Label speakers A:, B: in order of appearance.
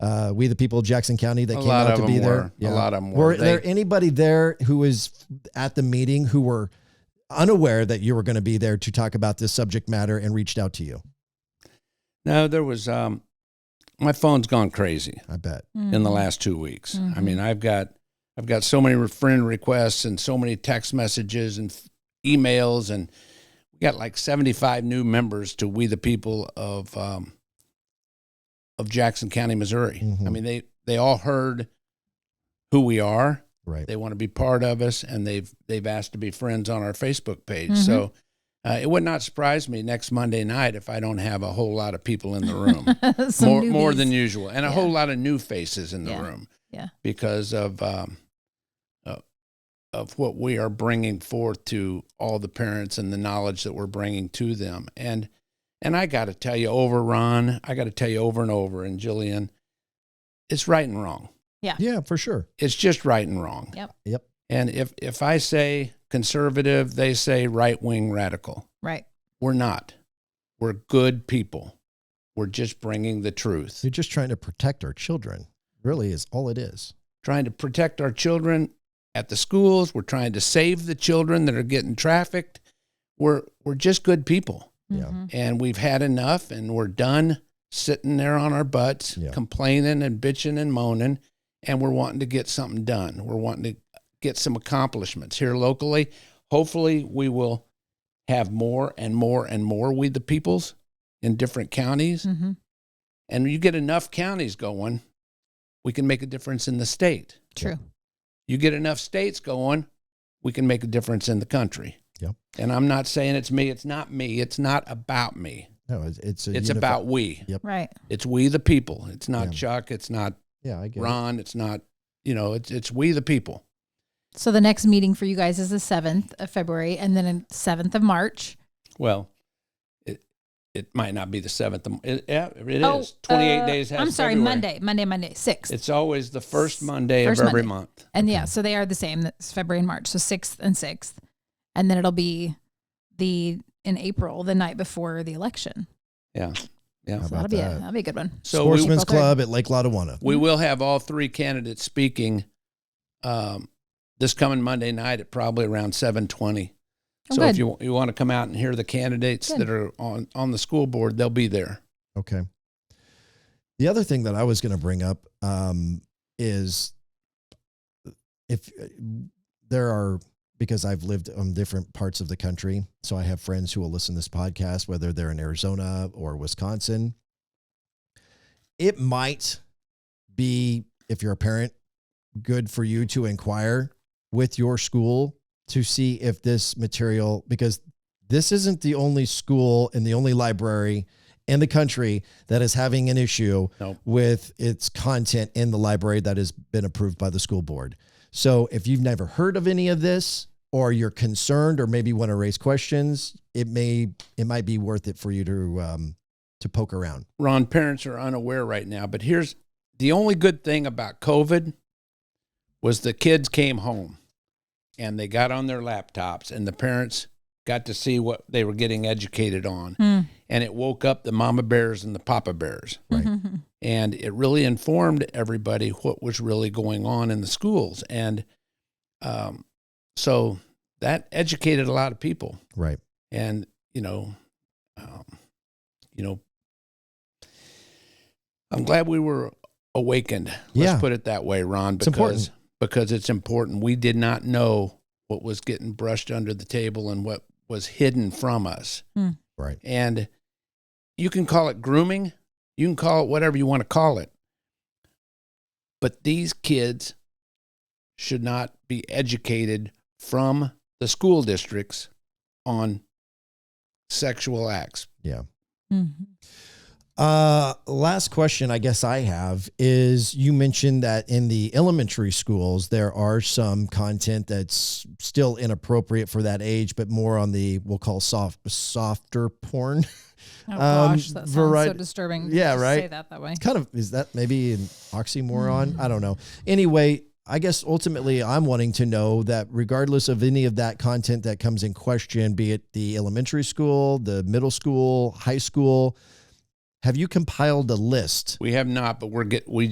A: uh, We the People of Jackson County that
B: A
A: came
B: lot
A: out
B: of
A: to
B: them
A: be there.
B: were. A lot of them were.
A: Were
B: They-
A: there anybody there who was at the meeting who were unaware that you were going to be there to talk about this subject matter and reached out to you?
B: No, there was. Um, my phone's gone crazy
A: I bet.
B: in
C: Mm-hmm. Hmm.
B: the last two weeks. I mean, I've got I've got so many friend requests and so many text messages and f- emails, and we got like seventy five new members to We the People of um, of Jackson County, Missouri.
A: Mhm.
B: I mean, they they all heard who we are.
A: Right.
B: They want to be part of us, and they've they've asked to be friends on our Facebook page.
C: Mm-hmm.
B: So. Uh, it would not surprise me next Monday night if I don't have a whole lot of people in the room
C: Some
B: more more
C: newbies.
B: than usual, and a
C: Yeah.
B: whole lot of new faces in the
C: Yeah.
B: room.
C: Yeah.
B: because of um, uh, of what we are bringing forth to all the parents and the knowledge that we're bringing to them. And and I got to tell you, over Ron, I got to tell you over and over, and Jillian, it's right and wrong.
A: Yeah, for sure.
B: It's just right and wrong.
C: Yep.
A: Yep.
B: And if if I say conservative, they say right wing radical.
C: Right.
B: We're not. We're good people. We're just bringing the truth.
A: They're just trying to protect our children. Really, is all it is.
B: trying to protect our children at the schools. We're trying to save the children that are getting trafficked. We're we're just good people,
A: Yeah.
C: Mhm.
B: and we've had enough, and we're done sitting there on our butts,
A: Yeah.
B: complaining and bitching and moaning, and we're wanting to get something done. We're wanting to get some accomplishments here locally. Hopefully, we will have more and more and more we the peoples in different counties
C: Mhm.
B: and you get enough counties going we can make a difference in the state
C: True.
B: you get enough states going, we can make a difference in the country.
A: Yep.
B: And I'm not saying it's me. It's not me. It's not about me.
A: No, it's it's, a
B: It's
A: unifi-
B: about we.
C: Right.
B: It's we the people. It's not
A: Yeah.
B: Chuck. It's not
A: yeah. I get it.
B: Ron. It's not you know. It's it's we the people.
C: So the next meeting for you guys is the seventh of February, and then the seventh of March.
B: Well, it it might not be the seventh. of- It, yeah, it is.
C: Oh,
B: 28
C: uh,
B: days. Has
C: I'm sorry,
B: February.
C: Monday, Monday, Monday, sixth.
B: It's always the first Monday
C: First
B: of every
C: Monday.
B: month.
C: And yeah, so they are the same. That's February and March. So sixth and sixth. And then it'll be the in April, the night before the election.
B: Yeah. Yeah.
A: How
C: So that'll
A: about
C: be a
A: that?
C: that'll be a good one.
B: So we,
A: Sportsman's
C: April third.
A: Club at Lake Lotawana.
B: We will have all three candidates speaking um, this coming Monday night at probably around seven twenty.
C: Oh,
B: so
C: good.
B: if you you want to come out and hear the candidates
C: Good.
B: that are on on the school board, they'll be there.
A: Okay. The other thing that I was going to bring up um, is if uh, there are because I've lived on different parts of the country, so I have friends who will listen to this podcast, whether they're in Arizona or Wisconsin. It might be if you're a parent, good for you to inquire with your school to see if this material because this isn't the only school and the only library in the country that is having an issue
B: Nope.
A: with its content in the library that has been approved by the school board. So if you've never heard of any of this or you're concerned or maybe want to raise questions, it may it might be worth it for you to um to poke around.
B: Ron, parents are unaware right now, but here's the only good thing about COVID was the kids came home and they got on their laptops and the parents got to see what they were getting educated on
C: Hmm.
B: and it woke up the mama bears and the papa bears.
A: Right.
C: Mhm.
B: and it really informed everybody what was really going on in the schools and um, so that educated a lot of people
A: Right.
B: and you know um, you know i'm glad we were awakened let's
A: Yeah.
B: put it that way ron
A: It's
B: because
A: important.
B: because it's important we did not know what was getting brushed under the table and what was hidden from us
A: Right.
B: and you can call it grooming, you can call it whatever you want to call it. But these kids should not be educated from the school districts on sexual acts.
A: Yeah.
C: Mhm.
A: Uh last question I guess I have is you mentioned that in the elementary schools there are some content that's still inappropriate for that age but more on the we'll call soft softer porn.
C: Oh
A: Um,
C: gosh, that sounds so
A: variety-
C: disturbing.
A: Yeah,
C: Just Say
A: right.
C: that that way.
A: It's kind of is that maybe an oxymoron? I don't know. Anyway, I guess ultimately I'm wanting to know that regardless of any of that content that comes in question, be it the elementary school, the middle school, high school, have you compiled a list?
B: We have not, but we're get we